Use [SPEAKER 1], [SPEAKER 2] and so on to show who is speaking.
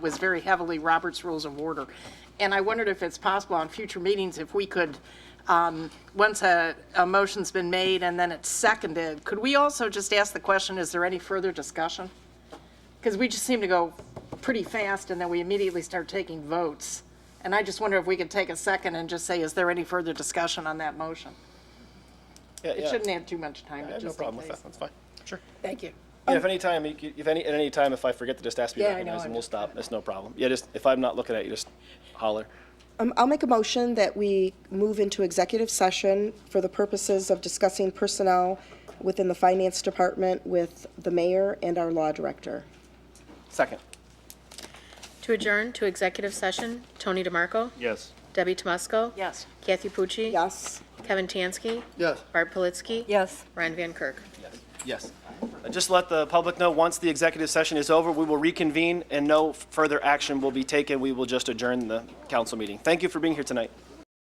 [SPEAKER 1] was very heavily Robert's Rules of Order. And I wondered if it's possible on future meetings, if we could, um, once a, a motion's been made and then it's seconded, could we also just ask the question, is there any further discussion? Because we just seem to go pretty fast and then we immediately start taking votes. And I just wonder if we could take a second and just say, is there any further discussion on that motion?
[SPEAKER 2] Yeah,
[SPEAKER 1] It
[SPEAKER 2] yeah.
[SPEAKER 1] shouldn't have too much time,
[SPEAKER 2] I
[SPEAKER 1] but
[SPEAKER 2] have no
[SPEAKER 1] just in
[SPEAKER 2] problem with
[SPEAKER 1] case.
[SPEAKER 2] that. That's fine. Sure.
[SPEAKER 1] Thank you.
[SPEAKER 2] Yeah, if any time, you- if any, at any time, if I forget to just ask to be
[SPEAKER 1] Yeah, I know,
[SPEAKER 2] recognized,
[SPEAKER 1] I'm
[SPEAKER 2] and we'll
[SPEAKER 1] just-
[SPEAKER 2] stop. That's no problem. Yeah, just, if I'm not looking at you, just holler.
[SPEAKER 3] Um, I'll make a motion that we move into executive session for the purposes of discussing personnel within the finance department with the mayor and our law director.
[SPEAKER 2] Second.
[SPEAKER 4] To adjourn to executive session, Tony DeMarco,
[SPEAKER 2] Yes.
[SPEAKER 4] Debbie Tomusko.
[SPEAKER 1] Yes.
[SPEAKER 4] Kathy Pucci.
[SPEAKER 3] Yes?
[SPEAKER 4] Kevin Tansky.
[SPEAKER 2] Yes.
[SPEAKER 4] Barb Politzky.
[SPEAKER 3] Yes.
[SPEAKER 4] Ryan Van Kirk.
[SPEAKER 2] Yes. Uh, Just let the public know, once the executive session is over, we will reconvene and no further action will be taken. We will just adjourn the council meeting. Thank you for being here tonight.